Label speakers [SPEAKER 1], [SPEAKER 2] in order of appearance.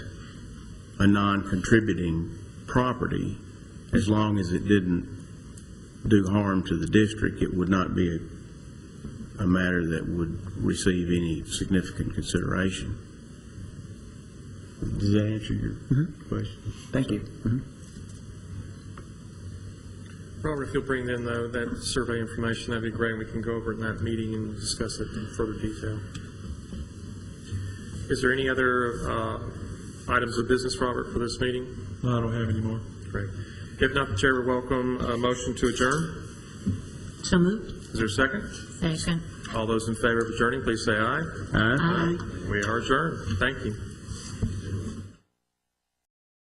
[SPEAKER 1] a non-contributing property, as long as it didn't do harm to the district, it would not be a, a matter that would receive any significant consideration. Does that answer your
[SPEAKER 2] Mm-hmm.
[SPEAKER 1] question?
[SPEAKER 3] Thank you.
[SPEAKER 4] Robert, if you'll bring in though, that survey information, that'd be great, and we can go over it in that meeting and discuss it in further detail. Is there any other uh, items of business, Robert, for this meeting?
[SPEAKER 2] No, I don't have any more.
[SPEAKER 4] Great. If not, the chair would welcome a motion to adjourn.
[SPEAKER 5] So moved.
[SPEAKER 4] Is there a second?
[SPEAKER 5] Second.
[SPEAKER 4] All those in favor of adjourning, please say aye.
[SPEAKER 1] All right?
[SPEAKER 5] Aye.
[SPEAKER 4] We are adjourned. Thank you.